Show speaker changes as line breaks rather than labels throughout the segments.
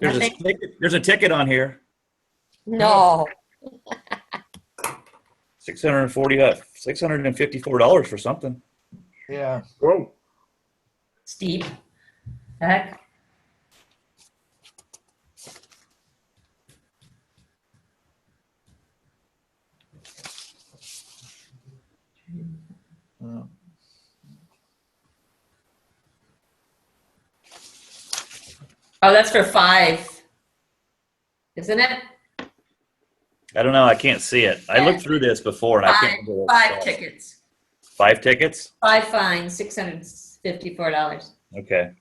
There's
I
a,
think-
ticket- there's a ticket on here,
No,
six hundred and forty, uh, six hundred and fifty-four dollars for something.
Yeah,
Whoa,
Steve. Heck,
yeah.
oh, that's for five. Isn't it?
I don't know, I can't see it. I looked through this before and I can't. remember what it
Five
was.
tickets,
Five tickets?
five fines, six hundred and fifty-four dollars.
Okay,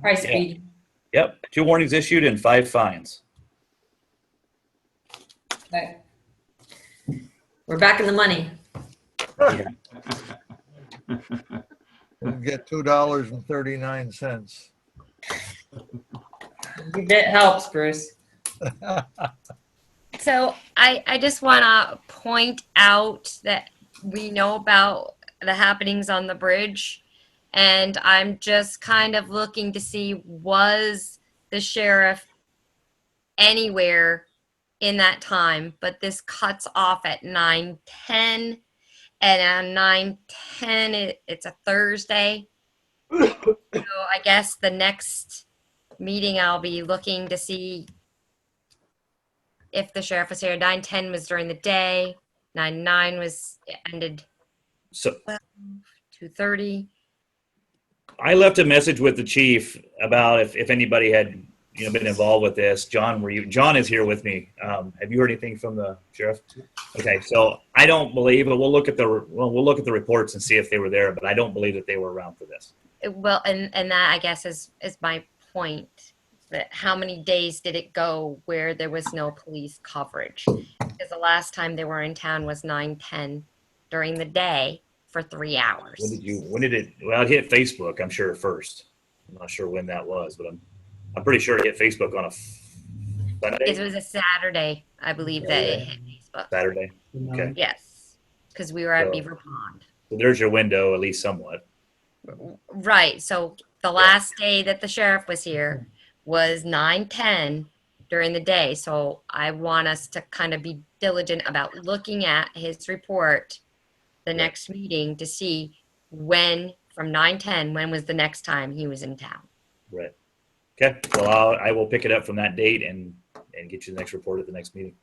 Price of
Yeah.
eating.
yep, two warnings issued and five fines.
Right. We're back in the money.
Didn't Get two dollars and thirty-nine cents.
That helps, Bruce.
So I, I just want to point out that we know about the happenings on the bridge. And I'm just kind of looking to see was the sheriff anywhere in that time? But this cuts off at 9:10. And at 9:10, it, it's a Thursday. so I guess the next meeting I'll be looking to see if the sheriff was here, nine ten was during the day, nine nine was it ended
So
two thirty.
I left a message with the chief about if, if anybody had, you know, been involved with this. John, were you, John is here with me. Um, have you heard anything from the sheriff? Okay, so I don't believe, but we'll look at the, well, we'll look at the reports and see if they were there, but I don't believe that they were around for this.
Well, and and that I guess is is my point. That how many days did it go where there was no police coverage? Because the last time they were in town was nine ten during the day for three hours.
When did you, when did it, well, it hit Facebook, I'm sure first. I'm not sure when that was, but I'm, I'm pretty sure it hit Facebook on a
It
Sunday,
was a Saturday, I believe that it hit Facebook.
Saturday. Okay,
Yes, because we were at
So-
Beaver Pond.
so there's your window, at least somewhat.
Right, so the last day that the sheriff was here was nine ten during the day, so I want us to kind of be diligent about looking at his report the next meeting to see when, from nine ten, when was the next time he was in town.
Right. Okay, well, I'll, I will pick it up from that date and, and get you the next report at the next meeting.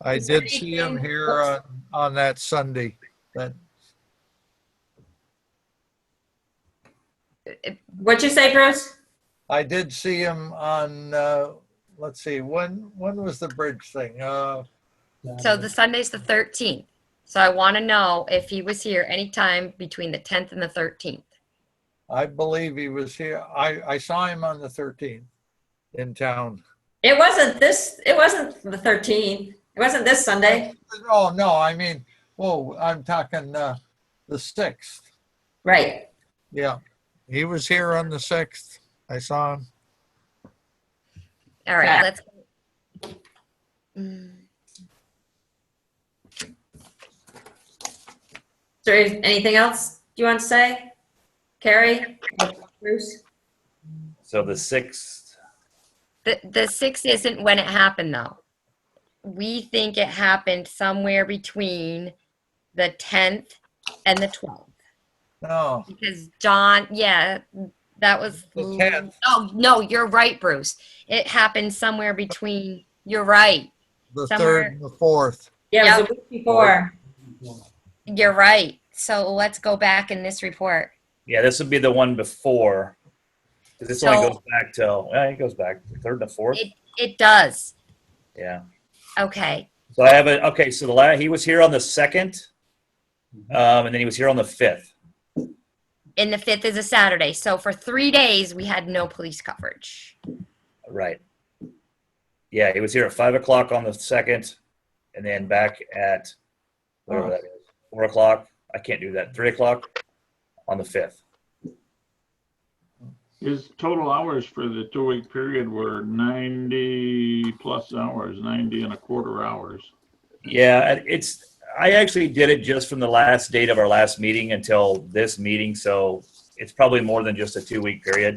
I
Is there
did see him
anything
here on,
else?
on that Sunday, that,
What'd you say, Bruce?
I did see him on, uh, let's see, when, when was the bridge thing? Uh,
So the Sunday's the thirteenth, so I want to know if he was here anytime between the tenth and the thirteenth.
I believe he was here, I, I saw him on the thirteenth in town.
It wasn't this, it wasn't the thirteenth. It wasn't this Sunday,
Oh, no, I mean, whoa, I'm talking, uh, the sixth,
right?
yeah. He was here on the sixth, I saw him.
All right,
Yeah.
let's. Mm.
Is there anything else you want to say? Carrie? Bruce?
So the sixth,
The, the six isn't when it happened though. We think it happened somewhere between the tenth and the twelfth.
No,
Because John, yeah, that was.
The 10th.
Oh, no, you're right, Bruce. It happened somewhere between, you're right,
the
Somewhere-
third and the fourth.
Yeah, it was the week before.
you're right. So let's go back in this report.
yeah, this would be the one before. 'cause this only
So-
goes back till, well, it goes back the third and the fourth,
It does.
yeah.
Okay,
So I have a, okay, so the la, he was here on the second, um, and then he was here on the fifth.
and the fifth is a Saturday. So for three days, we had no police coverage.
Right. Yeah, he was here at five o'clock on the second, and then back at whatever that is, four o'clock. I can't do that. Three o'clock on the fifth.
his total hours for the two-week period were 90 plus hours, 90 and a quarter hours.
Yeah, and it's. I actually did it just from the last date of our last meeting until this meeting, so it's probably more than just a two-week period.